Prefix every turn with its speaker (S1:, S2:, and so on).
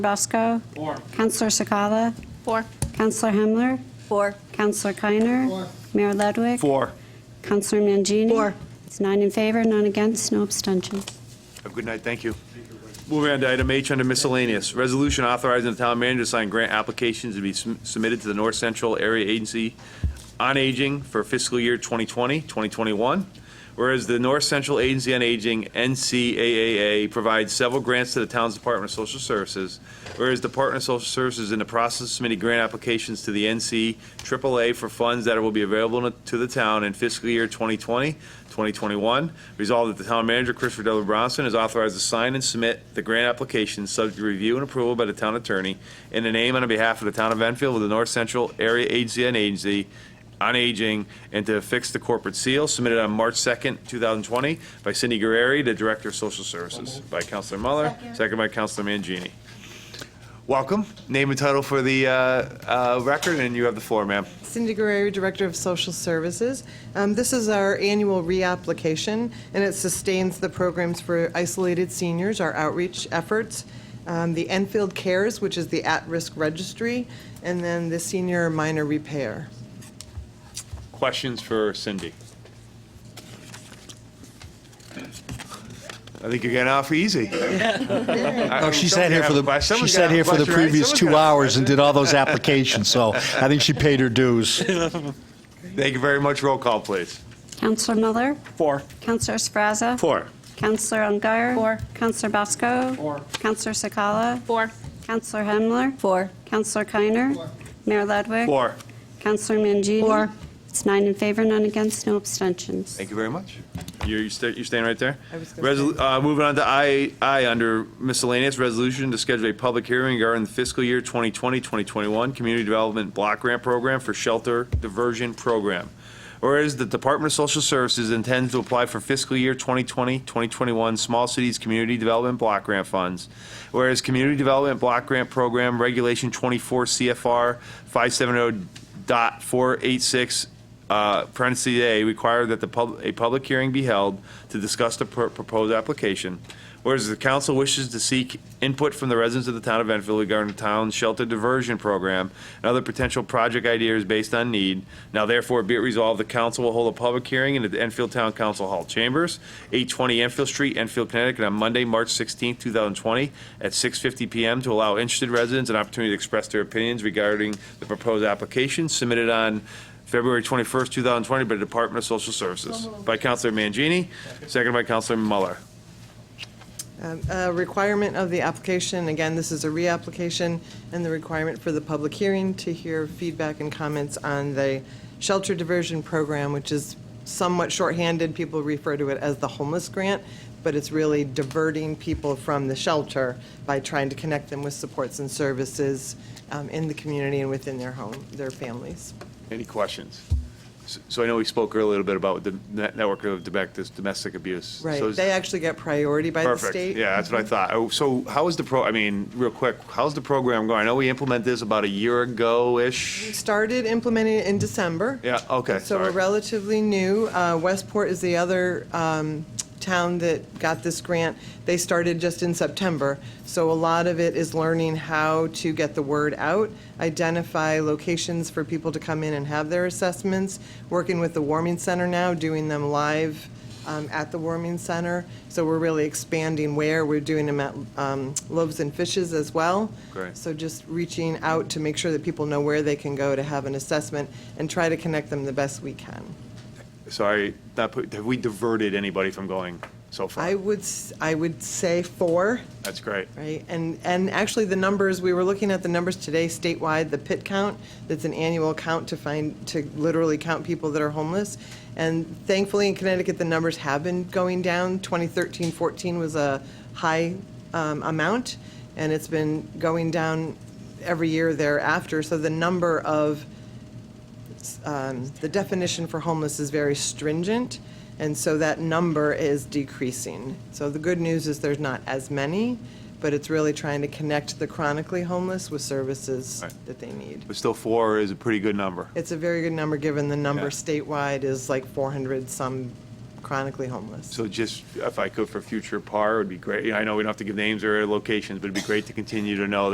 S1: Bosco. Four. Counselor Sakala.
S2: Four.
S1: Counselor Hemler.
S2: Four.
S1: Counselor Keiner. Four. Mayor Ludwig.
S3: Four.
S1: Counselor Mangini.
S2: Four.
S1: It's nine in favor, none against, no abstentions.
S3: Have a good night, thank you. Moving on to item H under miscellaneous, resolution authorizing the town manager to sign grant applications to be sum- submitted to the North Central Area Agency on Aging for fiscal year 2020, 2021. Whereas the North Central Agency on Aging, NCAAA, provides several grants to the town's Department of Social Services. Whereas the Department of Social Services is in the process of submitting grant applications to the NC AAA for funds that will be available to the town in fiscal year 2020, 2021. Resolved that the town manager, Christopher W. Bronson, is authorized to sign and submit the grant application subject to review and approval by the town attorney in the name and on behalf of the town of Enfield with the North Central Area Agency on Agency on Aging and to affix the corporate seal submitted on March 2nd, 2020 by Cindy Guerrieri, the Director of Social Services, by Counselor Muller, second by Counselor Mangini. Welcome. Name and title for the uh, uh, record, and you have the floor, ma'am.
S4: Cindy Guerrero, Director of Social Services. Um, This is our annual reapplication, and it sustains the programs for isolated seniors, our outreach efforts, um, the Enfield Cares, which is the at-risk registry, and then the senior minor repair.
S3: Questions for Cindy? I think you're getting off easy.
S5: No, she sat here for the, she sat here for the previous two hours and did all those applications, so I think she paid her dues.
S3: Thank you very much. Roll call, please.
S1: Counselor Miller.
S6: Four.
S1: Counselor Srazza.
S6: Four.
S1: Counselor Ungary.
S2: Four.
S1: Counselor Bosco.
S6: Four.
S1: Counselor Sakala.
S2: Four.
S1: Counselor Hemler.
S2: Four.
S1: Counselor Keiner. Four. Mayor Ludwig.
S3: Four.
S1: Counselor Mangini.
S2: Four.
S1: It's nine in favor, none against, no abstentions.
S3: Thank you very much. You're, you're sta- you're staying right there?
S4: I was gonna
S3: Resol- uh, Moving on to I, I, under miscellaneous resolution to schedule a public hearing regarding the fiscal year 2020, 2021 Community Development Block Grant Program for Shelter Diversion Program. Whereas the Department of Social Services intends to apply for fiscal year 2020, 2021 Small Cities Community Development Block Grant Funds. Whereas Community Development Block Grant Program Regulation 24 CFR 570.486 uh, parentheses A, require that the pub, a public hearing be held to discuss the pro- proposed application. Whereas the council wishes to seek input from the residents of the town of Enfield regarding the town's shelter diversion program and other potential project ideas based on need. Now therefore be it resolved, the council will hold a public hearing in the Enfield Town Council Hall Chambers, 820 Enfield Street, Enfield, Connecticut, on Monday, March 16, 2020, at 6:50 PM to allow interested residents an opportunity to express their opinions regarding the proposed application submitted on February 21st, 2020, by the Department of Social Services. By Counselor Mangini, seconded by Counselor Muller.
S4: Um, A requirement of the application, again, this is a reapplication, and the requirement for the public hearing to hear feedback and comments on the shelter diversion program, which is somewhat shorthanded, people refer to it as the homeless grant, but it's really diverting people from the shelter by trying to connect them with supports and services um, in the community and within their home, their families.
S3: Any questions? S- So I know we spoke earlier a little bit about the net- network of domec- this domestic abuse. So
S4: Right,
S3: is-
S4: they actually get priority by the
S3: Perfect.
S4: state.
S3: Yeah, that's what I thought. Oh, So how is the pro, I mean, real quick, how's the program going? I know we implemented this about a year ago-ish.
S4: Started implementing it in December.
S3: Yeah, okay,
S4: So we're
S3: sorry.
S4: relatively new. Uh, Westport is the other um, town that got this grant. They started just in September. So a lot of it is learning how to get the word out, identify locations for people to come in and have their assessments, working with the warming center now, doing them live um, at the warming center. So we're really expanding where. We're doing them at um, Loaves and Fishes as well.
S3: Great.
S4: So just reaching out to make sure that people know where they can go to have an assessment and try to connect them the best we can.
S3: Sorry, not put- have we diverted anybody from going so
S4: I
S3: far?
S4: would, s- I would say four,
S3: That's great.
S4: right? And, and actually, the numbers, we were looking at the numbers today statewide, the PIT count, that's an annual count to find, to literally count people that are homeless. And thankfully, in Connecticut, the numbers have been going down. 2013, 14 was a high um, amount, and it's been going down every year thereafter. So the number of um, the definition for homeless is very stringent, and so that number is decreasing. So the good news is there's not as many, but it's really trying to connect the chronically homeless with services
S3: Right.
S4: that they need.
S3: But still, four is a pretty good number.
S4: It's a very good number, given the number
S3: Yeah.
S4: statewide is like 400-some chronically homeless.
S3: So just, if I could, for future par, it would be great. I know we don't have to give names or locations, but it'd be great to continue to know